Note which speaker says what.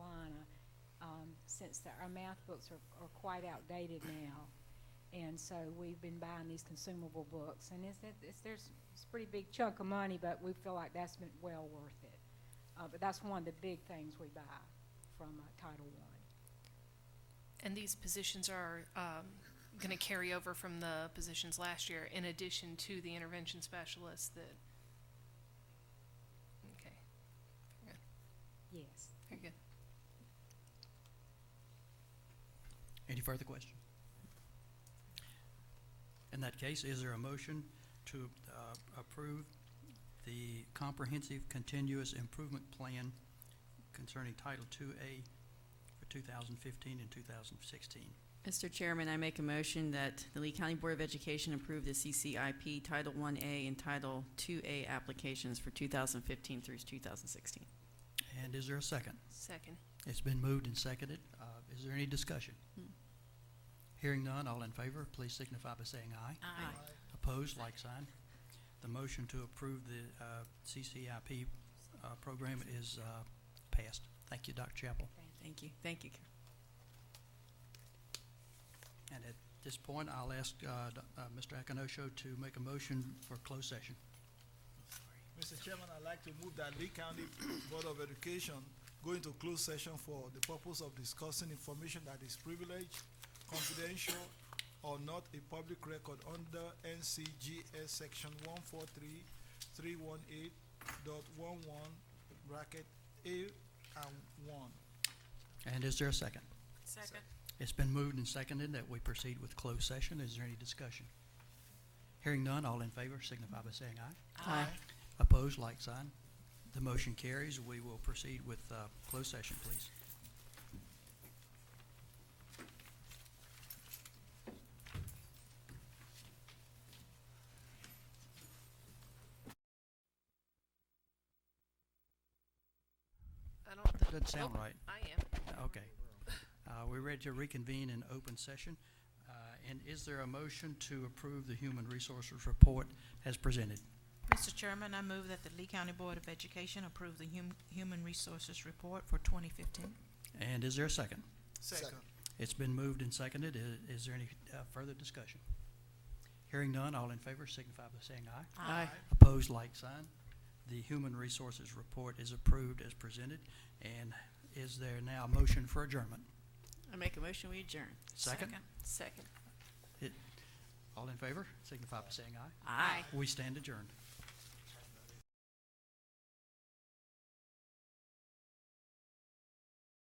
Speaker 1: sense that um, our math books are, are quite outdated now. And so we've been buying these consumable books, and it's, it's, there's, it's a pretty big chunk of money, but we feel like that's been well worth it. Uh, but that's one of the big things we buy from uh, Title I.
Speaker 2: And these positions are um, going to carry over from the positions last year in addition to the intervention specialists that. Okay,
Speaker 1: Yes.
Speaker 2: very good.
Speaker 3: Any further question? In that case, is there a motion to uh, approve the comprehensive continuous improvement plan concerning Title II-A for 2015 and 2016?
Speaker 4: Mr. Chairman, I make a motion that the Lee County Board of Education approve the CCIP Title I-A and Title II-A applications for 2015 through 2016.
Speaker 3: And is there a second?
Speaker 2: Second.
Speaker 3: It's been moved and seconded. Uh, Is there any discussion? Hearing none, all in favor, please signify by saying aye.
Speaker 4: Aye.
Speaker 3: Opposed, like sign. The motion to approve the uh, CCIP uh, program is uh, passed. Thank you, Dr. Chapel.
Speaker 4: Thank you, thank you.
Speaker 3: And at this point, I'll ask uh, Doc- uh, Mr. Akonosho to make a motion for closed session.
Speaker 5: Mr. Chairman, I'd like to move that Lee County Board of Education go into closed session for the purpose of discussing information that is privileged, confidential, or not a public record under NCGS Section one four three, three one eight dot one one, bracket A and one.
Speaker 3: And is there a second?
Speaker 5: Second.
Speaker 3: It's been moved and seconded that we proceed with closed session. Is there any discussion? Hearing none, all in favor signify by saying aye.
Speaker 4: Aye.
Speaker 3: Opposed, like sign. The motion carries. We will proceed with uh, closed session, please.
Speaker 2: I don't. think-
Speaker 3: Doesn't sound
Speaker 2: Oh,
Speaker 3: right.
Speaker 2: I am.
Speaker 3: Okay. Uh, We're ready to reconvene in open session. Uh, And is there a motion to approve the Human Resources Report as presented?
Speaker 6: Mr. Chairman, I move that the Lee County Board of Education approve the hum- Human Resources Report for 2015.
Speaker 3: And is there a second?
Speaker 5: Second.
Speaker 3: It's been moved and seconded. I- Is there any uh, further discussion? Hearing none, all in favor signify by saying aye.
Speaker 4: Aye.
Speaker 3: Opposed, like sign. The Human Resources Report is approved as presented. And is there now a motion for adjournment?
Speaker 4: I make a motion, we adjourn.
Speaker 3: Second?
Speaker 2: Second.
Speaker 3: All in favor signify by saying aye.
Speaker 4: Aye.
Speaker 3: We stand adjourned.